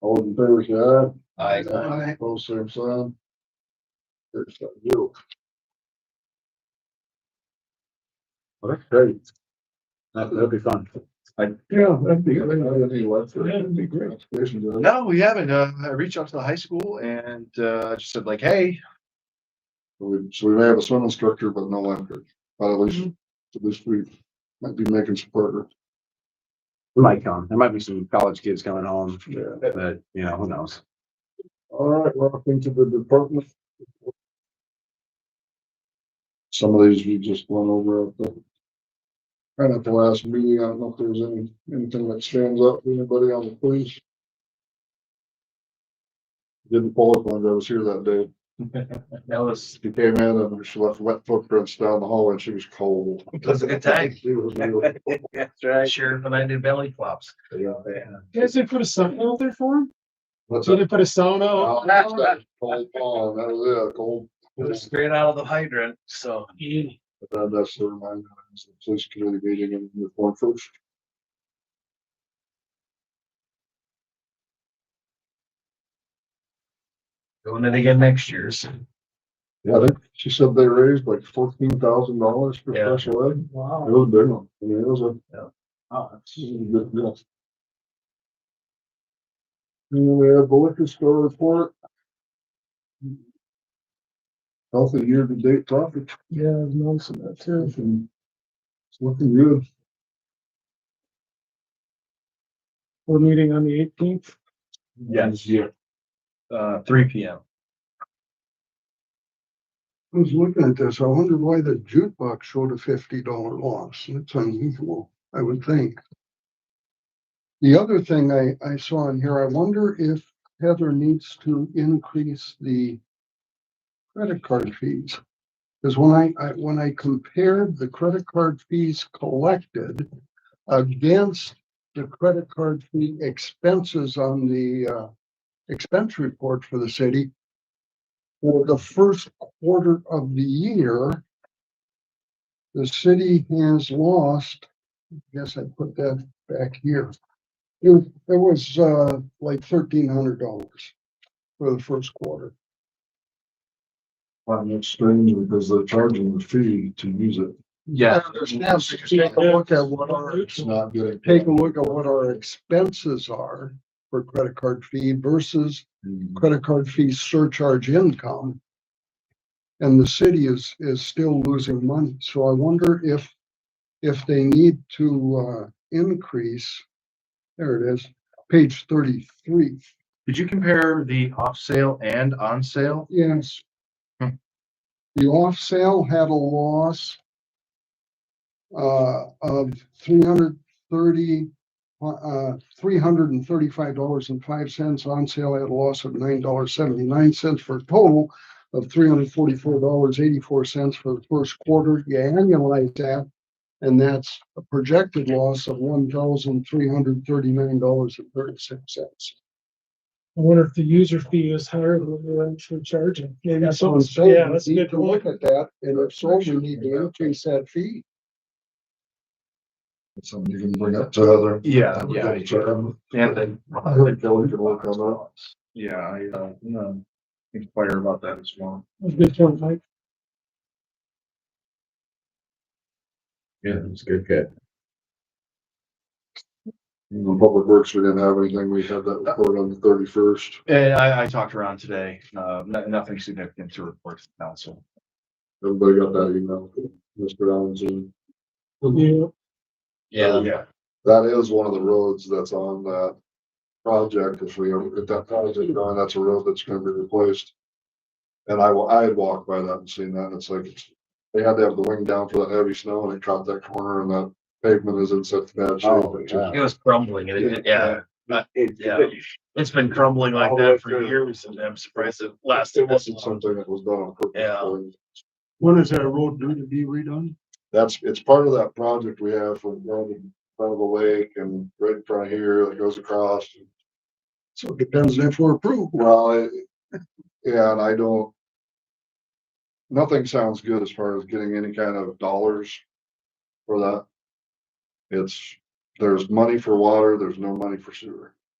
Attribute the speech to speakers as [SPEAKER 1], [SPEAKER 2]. [SPEAKER 1] All in favor, say aye.
[SPEAKER 2] I,
[SPEAKER 1] Both same sign. There's that deal.
[SPEAKER 3] great. That, that'd be fun.
[SPEAKER 1] Yeah, that'd be, that'd be great. Congratulations,
[SPEAKER 2] no, we haven't. Uh, I reached out to the high school and, uh, just said like, hey,
[SPEAKER 1] So we- so we may have a swim instructor, but no lifeguard, but at least, at least we might be making some progress.
[SPEAKER 3] We might come. There might be some college kids coming home,
[SPEAKER 1] Yeah.
[SPEAKER 3] but you know, who knows?
[SPEAKER 1] All right, we're up into the department. Some of these we just went over at the. Kind of the last meeting, I don't know if there's any, anything that stands out, for anybody on the police? Didn't pull up on, it, I was here that day.
[SPEAKER 4] That was,
[SPEAKER 1] She came in and she left wet footprints down the hallway and she was cold.
[SPEAKER 4] that was a good time.
[SPEAKER 1] She was really-
[SPEAKER 3] That's right.
[SPEAKER 4] Sure, when I did belly flops.
[SPEAKER 5] Guys, they put a sauna out there for him?
[SPEAKER 1] That's
[SPEAKER 5] So
[SPEAKER 1] it.
[SPEAKER 5] they put a sauna.
[SPEAKER 1] Oh,
[SPEAKER 5] out
[SPEAKER 1] that's
[SPEAKER 5] there?
[SPEAKER 1] that Cold pond, that was it, cold.
[SPEAKER 4] It was straight out of the hydrant, so.
[SPEAKER 5] Yeah.
[SPEAKER 1] But Uh, that's the reminder, it's the police committee meeting in the form first.
[SPEAKER 4] Doing it again next year, so.
[SPEAKER 1] Yeah, I think she said they raised like fourteen thousand dollars for
[SPEAKER 4] Yeah.
[SPEAKER 1] special ed. It
[SPEAKER 5] Wow.
[SPEAKER 1] was a big one. I mean, it was a.
[SPEAKER 4] Yeah.
[SPEAKER 1] Ah, it's a good deal. And we have the liquor store report. Healthy year-to-date profit. Yeah, I've noticed that too. It's looking good.
[SPEAKER 5] We're meeting on the eighteenth.
[SPEAKER 4] Yes. Uh, three P M.
[SPEAKER 1] I was looking at this, I wonder why the jukebox showed a fifty dollar loss, That's unusual, I would think. The other thing I, I saw in here, I wonder if Heather needs to increase the credit card fees. Because when I, I, when I compared the credit card fees collected against the credit card fee expenses on the, uh, expense report for the city, for the first quarter of the year, the city has lost, I guess I put that back here. There, there was, uh, like thirteen hundred dollars for the first quarter. Well, that's strange because they're charging the fee to use it.
[SPEAKER 4] Yeah.
[SPEAKER 1] Understand, so you take a look at what our,
[SPEAKER 5] not
[SPEAKER 1] good. Take a look at what our expenses are for credit card fee versus credit card fee surcharge income. And the city is, is still losing money. So I wonder if, if they need to, uh, increase. There it is, page thirty-three.
[SPEAKER 2] did you compare the off sale and on sale?
[SPEAKER 1] Yes.
[SPEAKER 2] Hmm.
[SPEAKER 1] The off sale had a loss uh, of three hundred thirty, uh, three hundred and thirty-five dollars and five cents. On sale had a loss of nine dollars seventy-nine cents for a total of three hundred forty-four dollars eighty-four cents for the first quarter. You annualize that, and that's a projected loss of one thousand three hundred thirty-nine dollars and thirty-six cents.
[SPEAKER 5] I wonder if the user fee is higher than we're actually charging. Maybe
[SPEAKER 1] That's what I'm saying.
[SPEAKER 5] something- Yeah, that's a
[SPEAKER 1] We need
[SPEAKER 5] good
[SPEAKER 1] to Look
[SPEAKER 5] point.
[SPEAKER 1] at that, and if so, we need to increase that fee. Something you can bring up to other.
[SPEAKER 2] Yeah,
[SPEAKER 4] Yeah, then.
[SPEAKER 1] I heard Kelly could work on that.
[SPEAKER 2] Yeah, I, uh, you know, inquire about that as well.
[SPEAKER 5] That's a good point, Mike.
[SPEAKER 3] Yeah, it's good, good.
[SPEAKER 1] Public Works, we didn't have anything, we had that report on the thirty-first.
[SPEAKER 2] And I, I talked around today, uh, no- nothing significant to report to the council.
[SPEAKER 1] Everybody got that email, Mr. Allen's in.
[SPEAKER 5] Yeah,
[SPEAKER 4] Yeah.
[SPEAKER 2] Yeah.
[SPEAKER 1] That is one of the roads that's on that project, if we, ever if that project is gone, that's a road that's gonna be replaced. And I, wa- I had walked by that and seen that, and it's like, they had to have the wing down for that heavy snow, and it caught that corner, and that pavement is in such bad shape.
[SPEAKER 3] Oh,
[SPEAKER 1] It's
[SPEAKER 3] yeah.
[SPEAKER 1] just-
[SPEAKER 4] It was crumbling, and it, yeah, yeah, it's been crumbling like
[SPEAKER 1] All the way
[SPEAKER 4] that for
[SPEAKER 1] through.
[SPEAKER 4] years, and I'm surprised it
[SPEAKER 1] It
[SPEAKER 4] lasted this
[SPEAKER 1] wasn't
[SPEAKER 4] long.
[SPEAKER 1] something that was done on purpose.
[SPEAKER 4] Yeah.
[SPEAKER 5] When is that road due to be redone?
[SPEAKER 1] That's, it's part of that project we have from down in front of the lake and right in front of here that goes across. So it depends if we're approved. Well, it- yeah, and I don't. Nothing sounds good as far as getting any kind of dollars for that. It's, there's money for water, there's no money for sewer.